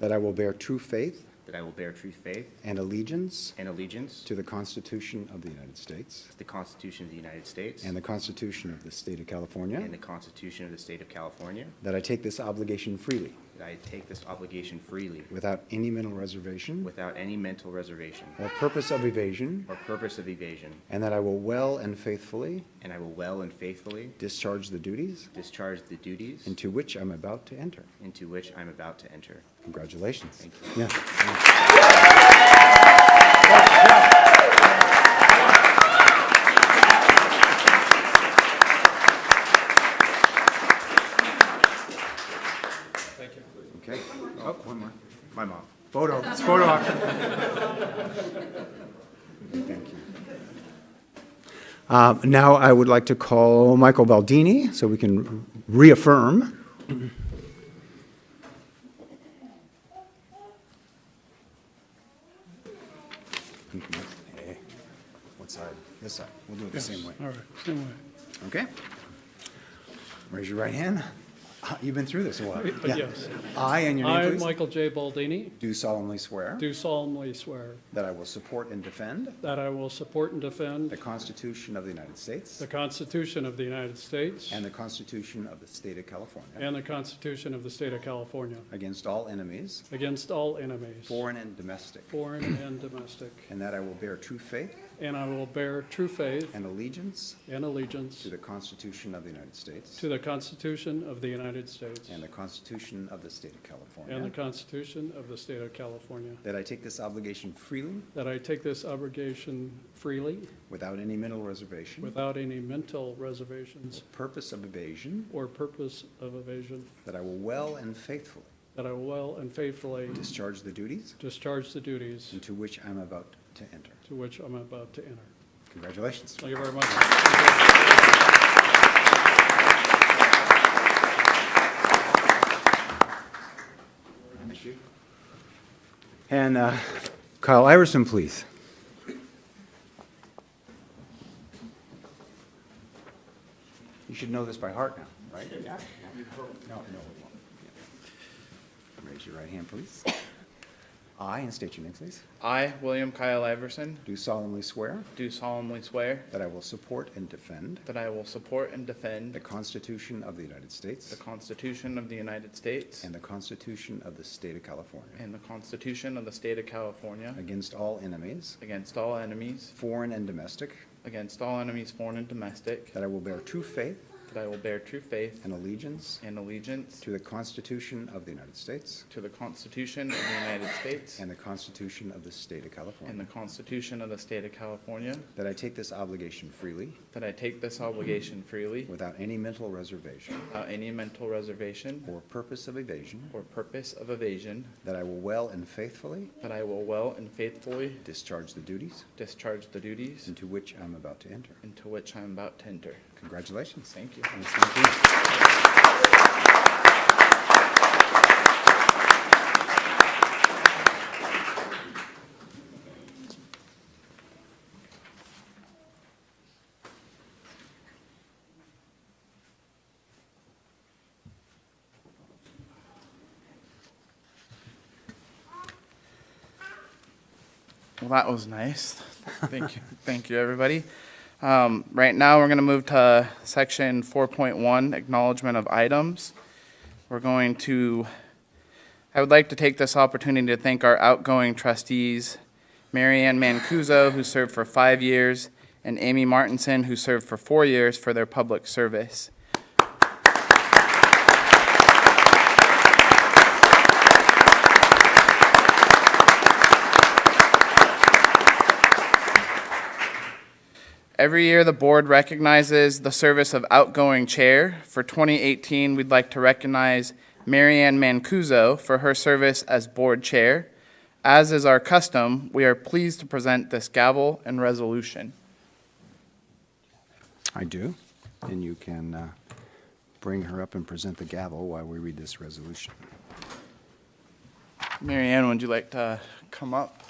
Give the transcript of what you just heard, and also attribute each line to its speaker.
Speaker 1: that I will bear true faith
Speaker 2: that I will bear true faith
Speaker 1: and allegiance
Speaker 2: and allegiance
Speaker 1: to the Constitution of the United States
Speaker 2: to the Constitution of the United States
Speaker 1: and the Constitution of the State of California,
Speaker 2: and the Constitution of the State of California,
Speaker 1: that I take this obligation freely,
Speaker 2: that I take this obligation freely
Speaker 1: without any mental reservation
Speaker 2: without any mental reservation
Speaker 1: or purpose of evasion,
Speaker 2: or purpose of evasion,
Speaker 1: and that I will well and faithfully
Speaker 2: and I will well and faithfully
Speaker 1: discharge the duties
Speaker 2: discharge the duties
Speaker 1: into which I'm about to enter.
Speaker 2: into which I'm about to enter.
Speaker 1: Congratulations.
Speaker 2: Thank
Speaker 1: Yeah. Okay. Oh, one more.
Speaker 2: My mom.
Speaker 1: Photo, it's photo op. Thank you. Uh, Now, I would like to call Michael Baldini, so we can reaffirm. Hey, What side? This side. We'll do it the same way.
Speaker 3: All right, same way.
Speaker 1: Okay? Raise your right hand. Uh, You've been through this a while.
Speaker 3: Uh,
Speaker 1: Yeah.
Speaker 3: yes.
Speaker 1: I, and your
Speaker 3: I,
Speaker 1: name, please,
Speaker 3: Michael J. Baldini,
Speaker 1: do solemnly swear
Speaker 3: do solemnly swear
Speaker 1: that I will support and defend
Speaker 3: that I will support and
Speaker 1: the
Speaker 3: defend
Speaker 1: Constitution of the United States
Speaker 3: the Constitution of the United States
Speaker 1: and the Constitution of the State of California
Speaker 3: and the Constitution of the State of California
Speaker 1: against all enemies,
Speaker 3: against all enemies,
Speaker 1: foreign and domestic,
Speaker 3: foreign and domestic,
Speaker 1: and that I will bear true faith
Speaker 3: and I will bear true faith
Speaker 1: and allegiance
Speaker 3: and allegiance
Speaker 1: to the Constitution of the United States
Speaker 3: to the Constitution of the United States
Speaker 1: and the Constitution of the State of
Speaker 3: and the
Speaker 1: California,
Speaker 3: Constitution of the State of California,
Speaker 1: that I take this obligation freely
Speaker 3: that I take this obligation freely
Speaker 1: without any mental reservation,
Speaker 3: without any mental reservations
Speaker 1: purpose of evasion,
Speaker 3: or purpose of evasion,
Speaker 1: that I will well and faithfully
Speaker 3: That I will well and faithfully
Speaker 1: discharge the duties
Speaker 3: discharge the duties
Speaker 1: into which I'm about to enter.
Speaker 3: to which I'm about to enter.
Speaker 1: Congratulations.
Speaker 3: Thank you very much.
Speaker 1: And uh, Kyle Iverson, please. You should know this by heart now, right? Yeah. No, no, we won't. Yeah. Raise your right hand, please. I, and state your name, please,
Speaker 4: I, William Kyle Iverson,
Speaker 1: do solemnly swear
Speaker 4: do solemnly swear
Speaker 1: that I will support and defend
Speaker 4: that I will support and defend
Speaker 1: the Constitution of the United
Speaker 4: the
Speaker 1: States
Speaker 4: Constitution of the United States
Speaker 1: and the Constitution of the State of California
Speaker 4: and the Constitution of the State of California
Speaker 1: against all enemies,
Speaker 4: against all enemies,
Speaker 1: foreign and domestic,
Speaker 4: against all enemies foreign and domestic,
Speaker 1: that I will bear true faith
Speaker 4: that I will bear true faith
Speaker 1: and allegiance
Speaker 4: and allegiance
Speaker 1: To the Constitution of the United States
Speaker 4: to the Constitution of the United States
Speaker 1: and the Constitution of the State of
Speaker 4: and the
Speaker 1: California.
Speaker 4: Constitution of the State of California,
Speaker 1: That I take this obligation freely,
Speaker 4: that I take this obligation freely
Speaker 1: without any mental reservation
Speaker 4: without any mental reservation
Speaker 1: or purpose of evasion.
Speaker 4: or purpose of evasion,
Speaker 1: That I will well and faithfully
Speaker 4: that I will well and faithfully
Speaker 1: discharge the duties
Speaker 4: discharge the duties
Speaker 1: into which I'm about to enter.
Speaker 4: into which I am about to enter.
Speaker 1: Congratulations.
Speaker 4: Thank you.
Speaker 1: Yes, thank you.
Speaker 4: Well, that was nice. Thank you, thank you, everybody. Um, Right now, we're going to move to section 4.1, acknowledgement of items. We're going to, I would like to take this opportunity to thank our outgoing trustees, Mary Ann Mancuso, who served for five years, and Amy Martinson, who served for four years, for their public service. Every year, the board recognizes the service of outgoing chair. For 2018, we'd like to recognize Marianne Mancuso for her service as board chair. As is our custom, we are pleased to present this gavel and resolution.
Speaker 1: I do. And you can uh, bring her up and present the gavel while we read this resolution.
Speaker 4: Marianne, would you like to come up?